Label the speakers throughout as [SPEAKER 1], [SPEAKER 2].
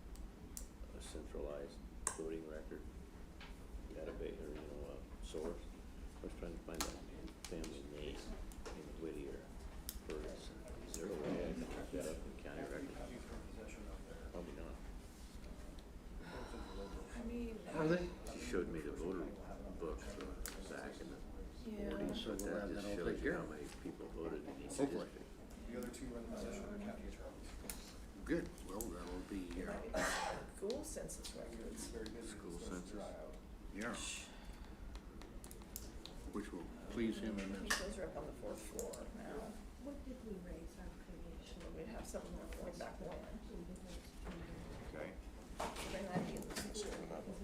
[SPEAKER 1] uh,
[SPEAKER 2] people voted against it.
[SPEAKER 1] Hopefully.
[SPEAKER 3] The other two are in the position of county attorneys.
[SPEAKER 1] Good, well, that'll be, uh,
[SPEAKER 4] School census
[SPEAKER 3] It's
[SPEAKER 4] records.
[SPEAKER 3] very busy.
[SPEAKER 2] School
[SPEAKER 3] It starts to
[SPEAKER 2] census.
[SPEAKER 3] dry out.
[SPEAKER 1] yeah. Which will please him
[SPEAKER 4] I
[SPEAKER 1] and
[SPEAKER 4] think
[SPEAKER 1] his,
[SPEAKER 4] those are up on the fourth floor now.
[SPEAKER 5] What did we raise our previous
[SPEAKER 4] Well, We'd have something that went back one.
[SPEAKER 2] Okay.
[SPEAKER 4] They might be in the future about the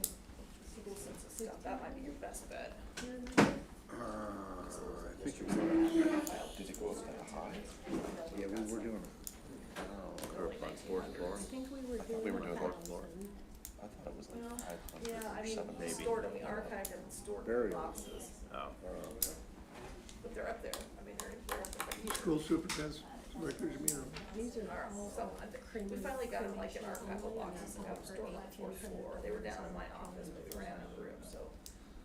[SPEAKER 4] school census stuff. That might be your best bet.
[SPEAKER 1] uh, I think it was,
[SPEAKER 3] Did it go up that high?
[SPEAKER 1] yeah, we were doing
[SPEAKER 2] Oh, Or on fourth floor.
[SPEAKER 5] I think we were
[SPEAKER 2] we were
[SPEAKER 5] doing
[SPEAKER 2] doing
[SPEAKER 5] a
[SPEAKER 2] fourth floor.
[SPEAKER 5] thousand.
[SPEAKER 3] I thought it was
[SPEAKER 4] Well,
[SPEAKER 3] like five
[SPEAKER 4] yeah, I
[SPEAKER 3] hundred or
[SPEAKER 4] mean,
[SPEAKER 3] seven.
[SPEAKER 2] Maybe.
[SPEAKER 4] stored in the archive and stored in
[SPEAKER 1] Burial.
[SPEAKER 4] boxes,
[SPEAKER 2] Oh,
[SPEAKER 4] but they're up there. I mean, they're, they're up there.
[SPEAKER 6] School superintendent's records, you know,
[SPEAKER 5] These are
[SPEAKER 4] Or
[SPEAKER 5] all
[SPEAKER 4] some, I think, we finally got them like in archival boxes and got them stored on the fourth floor. They were down in my office, but we ran out of room, so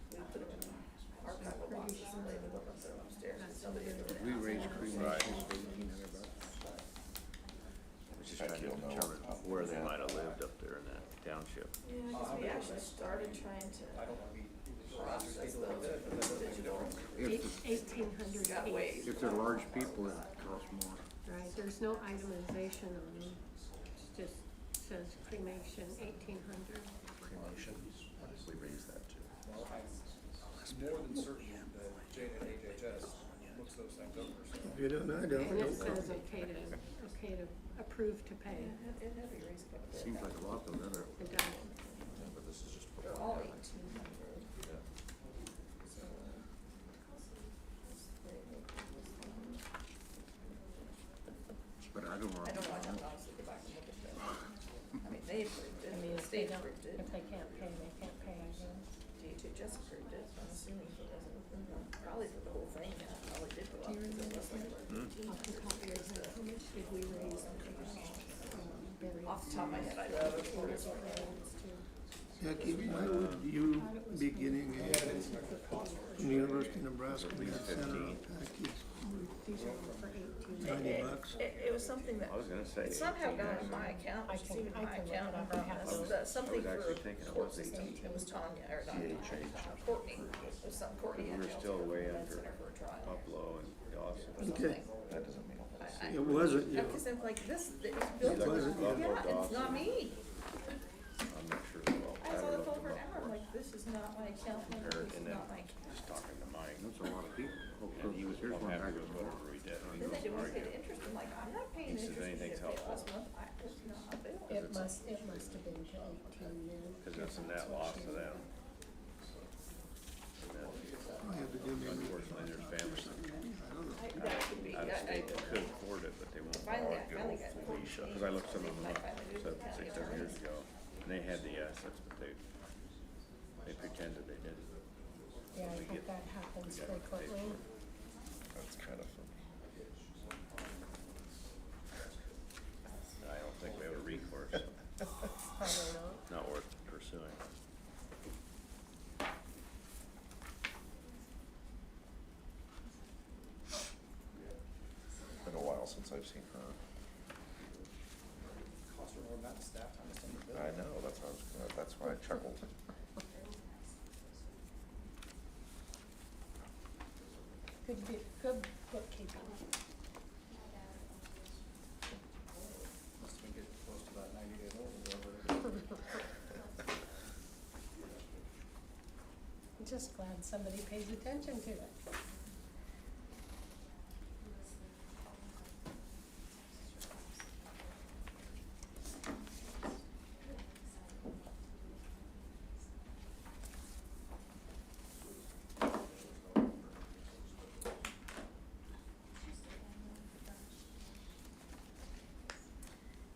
[SPEAKER 4] we put them in archival boxes and they would look up there upstairs and somebody had
[SPEAKER 1] a,
[SPEAKER 4] been
[SPEAKER 1] we
[SPEAKER 4] out.
[SPEAKER 1] raised pretty much
[SPEAKER 2] Right.
[SPEAKER 1] eighteen hundred bucks.
[SPEAKER 2] I was just trying to determine where they might have lived up there in that township.
[SPEAKER 4] Yeah, because we actually started trying to
[SPEAKER 3] I don't want to be.
[SPEAKER 4] process those digital.
[SPEAKER 1] If,
[SPEAKER 5] eighteen hundred
[SPEAKER 4] Got
[SPEAKER 5] feet,
[SPEAKER 4] waived.
[SPEAKER 1] the- if they're large people, it costs more.
[SPEAKER 5] right? There's no itemization on them. It just says cremation eighteen hundred.
[SPEAKER 3] Cremation, what did we raise that to? Well, I'm more than certain that Jane at HHS looks those things over, so.
[SPEAKER 6] if you don't, I don't.
[SPEAKER 5] And it
[SPEAKER 6] don't
[SPEAKER 5] says
[SPEAKER 6] come.
[SPEAKER 5] okay to, okay to approve to pay.
[SPEAKER 4] It had, it had to be raised quite a bit.
[SPEAKER 1] Seems like a lot, but then it-
[SPEAKER 5] It does.
[SPEAKER 3] But this is just.
[SPEAKER 4] They're all eighteen hundred.
[SPEAKER 1] but I don't know.
[SPEAKER 4] I don't know, I'd have to honestly go back and look at them. I mean, they approved it, the state approved it,
[SPEAKER 5] they can't pay, they can't pay, I guess.
[SPEAKER 4] DHHS approved it, so I'm assuming he doesn't, probably for the whole thing, yeah, probably did go up. Do
[SPEAKER 5] Off the top of your head, how much did we raise on burial?
[SPEAKER 4] Off the top of my head, I don't know.
[SPEAKER 6] Jackie, why would you be getting a, from the University of Nebraska, we had sent her a package,
[SPEAKER 5] These are all for eighteen.
[SPEAKER 6] ninety bucks.
[SPEAKER 4] It, it was something that
[SPEAKER 2] I was gonna say.
[SPEAKER 4] somehow
[SPEAKER 2] 18,
[SPEAKER 4] got in
[SPEAKER 2] actually.
[SPEAKER 4] my account,
[SPEAKER 5] I
[SPEAKER 4] which is
[SPEAKER 5] can-
[SPEAKER 4] even
[SPEAKER 5] I
[SPEAKER 4] my
[SPEAKER 5] can look
[SPEAKER 4] account,
[SPEAKER 5] it up.
[SPEAKER 4] I
[SPEAKER 5] I was-
[SPEAKER 4] promise,
[SPEAKER 2] I was
[SPEAKER 4] something for
[SPEAKER 2] actually thinking it
[SPEAKER 4] court
[SPEAKER 2] was
[SPEAKER 4] system,
[SPEAKER 2] 18.
[SPEAKER 4] it was Tanya, or not Tanya,
[SPEAKER 2] CHH.
[SPEAKER 4] Courtney, it was some Courtney.
[SPEAKER 2] We were
[SPEAKER 4] had jail
[SPEAKER 2] still
[SPEAKER 4] time,
[SPEAKER 2] way
[SPEAKER 4] and
[SPEAKER 2] under
[SPEAKER 4] sent her for a trial
[SPEAKER 2] Buffalo and
[SPEAKER 4] or
[SPEAKER 2] Dawson.
[SPEAKER 6] Okay,
[SPEAKER 4] something.
[SPEAKER 3] That doesn't mean a
[SPEAKER 4] I-
[SPEAKER 3] whole.
[SPEAKER 4] I-
[SPEAKER 6] it wasn't you.
[SPEAKER 4] Yeah, Cause I'm like, this, it's built,
[SPEAKER 2] like,
[SPEAKER 4] on-
[SPEAKER 2] "Buffalo
[SPEAKER 4] yeah, it's not
[SPEAKER 2] Dawson."
[SPEAKER 4] me.
[SPEAKER 2] I'm not sure. Well,
[SPEAKER 4] I saw
[SPEAKER 2] haven't
[SPEAKER 4] the
[SPEAKER 2] looked
[SPEAKER 4] phone for
[SPEAKER 2] them up
[SPEAKER 4] an hour, I'm like, this is not my account number,
[SPEAKER 2] compared,
[SPEAKER 4] this is
[SPEAKER 2] and then
[SPEAKER 4] not my account.
[SPEAKER 2] just talking to Mike.
[SPEAKER 1] That's a lot of people. Oh,
[SPEAKER 2] And he was
[SPEAKER 1] here's one
[SPEAKER 2] happy
[SPEAKER 1] back
[SPEAKER 2] with
[SPEAKER 1] and forth.
[SPEAKER 2] whatever we did.
[SPEAKER 4] Then they did not pay the interest, I'm like, I'm not paying
[SPEAKER 2] He says
[SPEAKER 4] interest, you
[SPEAKER 2] anything's
[SPEAKER 4] didn't pay it
[SPEAKER 2] helpful.
[SPEAKER 4] last month, I, it's not available.
[SPEAKER 5] It must, it must have been to eighteen then.
[SPEAKER 2] Cause that's a net loss to them. And then
[SPEAKER 6] I have to do me a report.
[SPEAKER 2] Unfortunately, there's families that
[SPEAKER 6] I don't know.
[SPEAKER 4] I- That could be,
[SPEAKER 2] out
[SPEAKER 4] I,
[SPEAKER 2] of
[SPEAKER 4] I,
[SPEAKER 2] state that could afford it, but they won't
[SPEAKER 4] Finally, I
[SPEAKER 2] borrow
[SPEAKER 4] finally
[SPEAKER 2] it,
[SPEAKER 4] got
[SPEAKER 2] go Felicia, cause I looked some of them up, seven, six, seven years ago. And they had the assets, but they, they pretended they didn't.
[SPEAKER 5] Yeah, I think that happens frequently.
[SPEAKER 3] That's kind of funny.
[SPEAKER 2] And I don't think we have a recourse,
[SPEAKER 5] Probably not.
[SPEAKER 2] not worth pursuing.
[SPEAKER 3] Been a while since I've seen her. I know, that's why I was, gonna- that's why I chuckled.
[SPEAKER 5] Good, bu- good bookkeeping.
[SPEAKER 3] Must have been getting close to about ninety days old, whatever.
[SPEAKER 5] I'm Just glad somebody pays attention to it.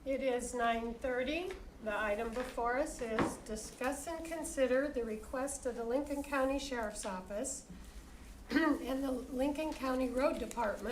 [SPEAKER 5] It is nine thirty. The item before us is discuss and consider the request of the Lincoln County Sheriff's Office and the Lincoln County Road Department